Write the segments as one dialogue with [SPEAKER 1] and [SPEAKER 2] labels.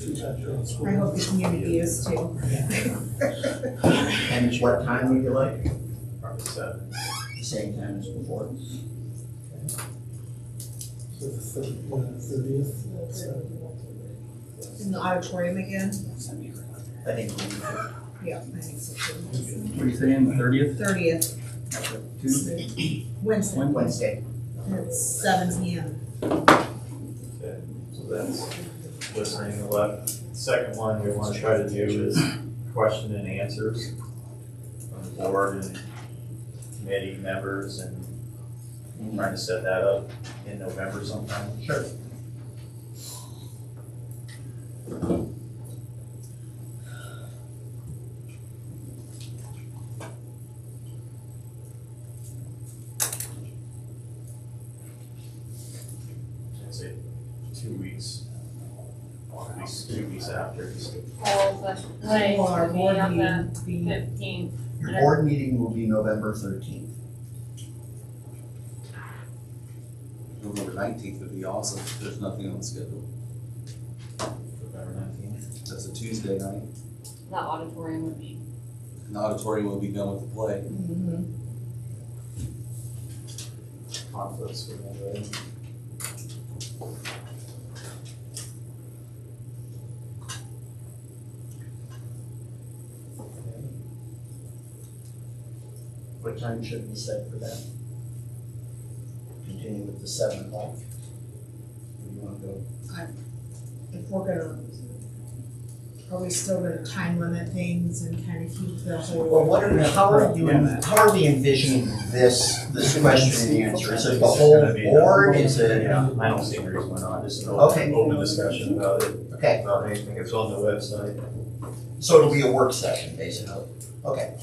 [SPEAKER 1] I hope the community is too.
[SPEAKER 2] And what time would you like?
[SPEAKER 3] Probably seven.
[SPEAKER 2] The Same time as before?
[SPEAKER 4] So the thirty, the thirtieth,
[SPEAKER 1] In the auditorium again?
[SPEAKER 2] I think. we need to-
[SPEAKER 1] Yeah, I think so too.
[SPEAKER 5] What are you saying, the thirtieth?
[SPEAKER 1] Thirtieth,
[SPEAKER 5] Tuesday?
[SPEAKER 1] Wednesday,
[SPEAKER 2] Wednesday.
[SPEAKER 1] at seven P M.
[SPEAKER 3] Okay, So that's listening to what, second one we wanna try to do is question and answers from the board and committee members and trying to set that up in November sometime. Sure. I'd say two weeks, one week, two weeks after.
[SPEAKER 6] polls that like
[SPEAKER 1] Will our
[SPEAKER 6] to be
[SPEAKER 1] board
[SPEAKER 6] on the
[SPEAKER 1] meeting be-
[SPEAKER 6] fifteenth.
[SPEAKER 2] Your board meeting will be November thirteenth.
[SPEAKER 7] November nineteenth would be awesome, there's nothing on the schedule,
[SPEAKER 3] November nineteenth.
[SPEAKER 7] that's a Tuesday night,
[SPEAKER 6] The auditorium would be.
[SPEAKER 7] and the auditorium will be done with the play.
[SPEAKER 1] Mhm.
[SPEAKER 3] Conflicts with that, right?
[SPEAKER 2] What time should we set for that? Continue with the seven o'clock? Or you wanna go?
[SPEAKER 1] If we're gonna, are we still gonna time limit things and kind of keep the
[SPEAKER 2] Well,
[SPEAKER 1] whole?
[SPEAKER 2] what are, how are you, how are we envisioning this, this question and answer? Is it the whole board, is it?
[SPEAKER 3] Yeah, I don't see any reason why not, just an
[SPEAKER 2] Okay.
[SPEAKER 3] open, open discussion about it,
[SPEAKER 2] Okay,
[SPEAKER 3] about anything that's on the website.
[SPEAKER 2] so it'll be a work session, basically, okay.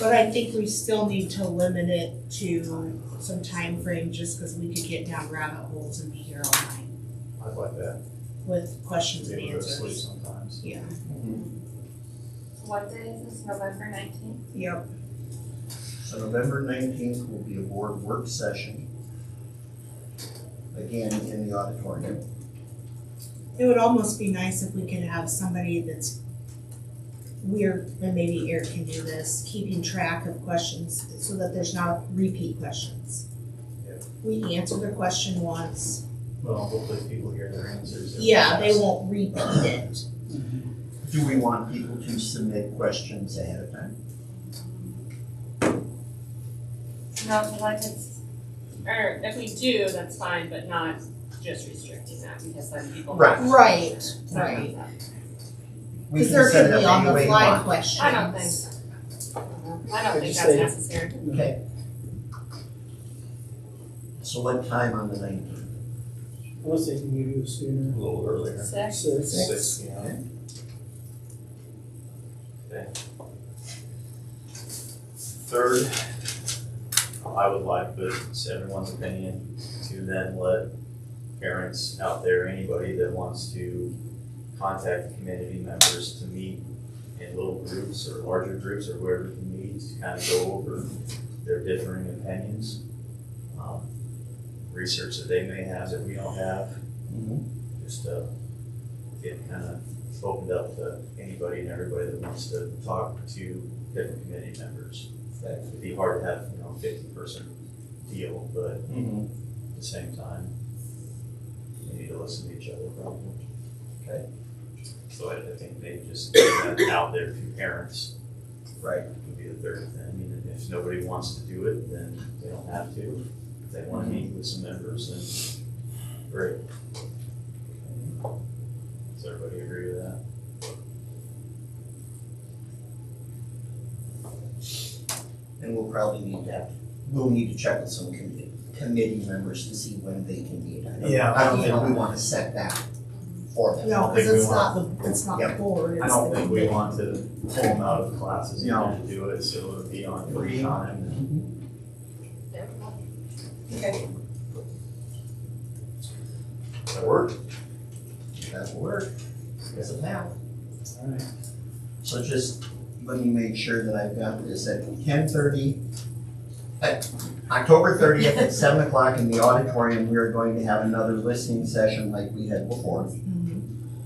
[SPEAKER 1] But I think we still need to limit it to some time frame, just because we could get down rabbit holes and be here all night
[SPEAKER 3] I'd like that,
[SPEAKER 1] with questions and
[SPEAKER 3] maybe go to sleep
[SPEAKER 1] answers.
[SPEAKER 3] sometimes.
[SPEAKER 1] Yeah,
[SPEAKER 6] What day is this, November nineteenth?
[SPEAKER 1] yep,
[SPEAKER 2] So November nineteenth will be a board work session. Again, in the auditorium.
[SPEAKER 1] it would almost be nice if we could have somebody that's we're, and maybe Eric can do this, keeping track of questions so that there's not repeat questions.
[SPEAKER 3] Yeah.
[SPEAKER 1] We answer the question once,
[SPEAKER 3] Well, hopefully people hear their answers.
[SPEAKER 1] Yeah, they won't repeat it.
[SPEAKER 2] Do we want people to submit questions ahead of time?
[SPEAKER 6] No, so like it's, or if we do, that's fine, but not just restricting that because then people.
[SPEAKER 2] Right.
[SPEAKER 1] Right,
[SPEAKER 6] Right.
[SPEAKER 2] We
[SPEAKER 1] Because
[SPEAKER 2] can
[SPEAKER 1] there
[SPEAKER 2] set it
[SPEAKER 1] could be
[SPEAKER 2] up
[SPEAKER 1] on
[SPEAKER 2] any way
[SPEAKER 1] the
[SPEAKER 2] you
[SPEAKER 1] fly
[SPEAKER 2] want.
[SPEAKER 1] questions.
[SPEAKER 6] I don't think so. I don't think
[SPEAKER 4] just
[SPEAKER 6] that's
[SPEAKER 4] say-
[SPEAKER 6] necessary.
[SPEAKER 2] Okay. So what time on the nineteenth?
[SPEAKER 4] unless they can give you a sooner.
[SPEAKER 3] A little earlier.
[SPEAKER 6] Six,
[SPEAKER 4] Six.
[SPEAKER 3] Six, you know? Okay. Third, I would like, but it's everyone's opinion, to then let parents out there, anybody that wants to contact community members to meet in little groups or larger groups or wherever you meet, to kind of go over their differing opinions. um, Research that they may have that we don't have, just uh, get kind of opened up to anybody and everybody that wants to talk to different committee members. It'd be hard to have, you know, fifty person deal, but
[SPEAKER 2] Mm-hmm.
[SPEAKER 3] at the same time, you need to listen to each other probably.
[SPEAKER 2] Okay.
[SPEAKER 3] So I I think they just get that out there to parents
[SPEAKER 2] Right.
[SPEAKER 3] would be the third thing. I mean, if nobody wants to do it, then they don't have to. If they want to meet with some members, then great. Does everybody agree with that?
[SPEAKER 2] And we'll probably need to, have- we'll need to check with some committee, committee members to see when they can meet. I don't-
[SPEAKER 3] Yeah.
[SPEAKER 2] I don't think we wanna set that for them.
[SPEAKER 1] No,
[SPEAKER 3] think
[SPEAKER 1] because
[SPEAKER 3] we
[SPEAKER 1] it's not the, it's not the
[SPEAKER 2] Yep.
[SPEAKER 1] board,
[SPEAKER 3] I
[SPEAKER 1] it's
[SPEAKER 3] don't think we
[SPEAKER 1] the,
[SPEAKER 3] want to pull them out of classes and
[SPEAKER 2] No.
[SPEAKER 3] have to do it, so it would be on free time.
[SPEAKER 6] Okay.
[SPEAKER 3] Does that work?
[SPEAKER 2] That'll work, as of now.
[SPEAKER 4] All right.
[SPEAKER 2] So just let me make sure that I've got this at ten thirty. At October thirtieth at seven o'clock in the auditorium, we are going to have another listening session like we had before.
[SPEAKER 1] Mhm.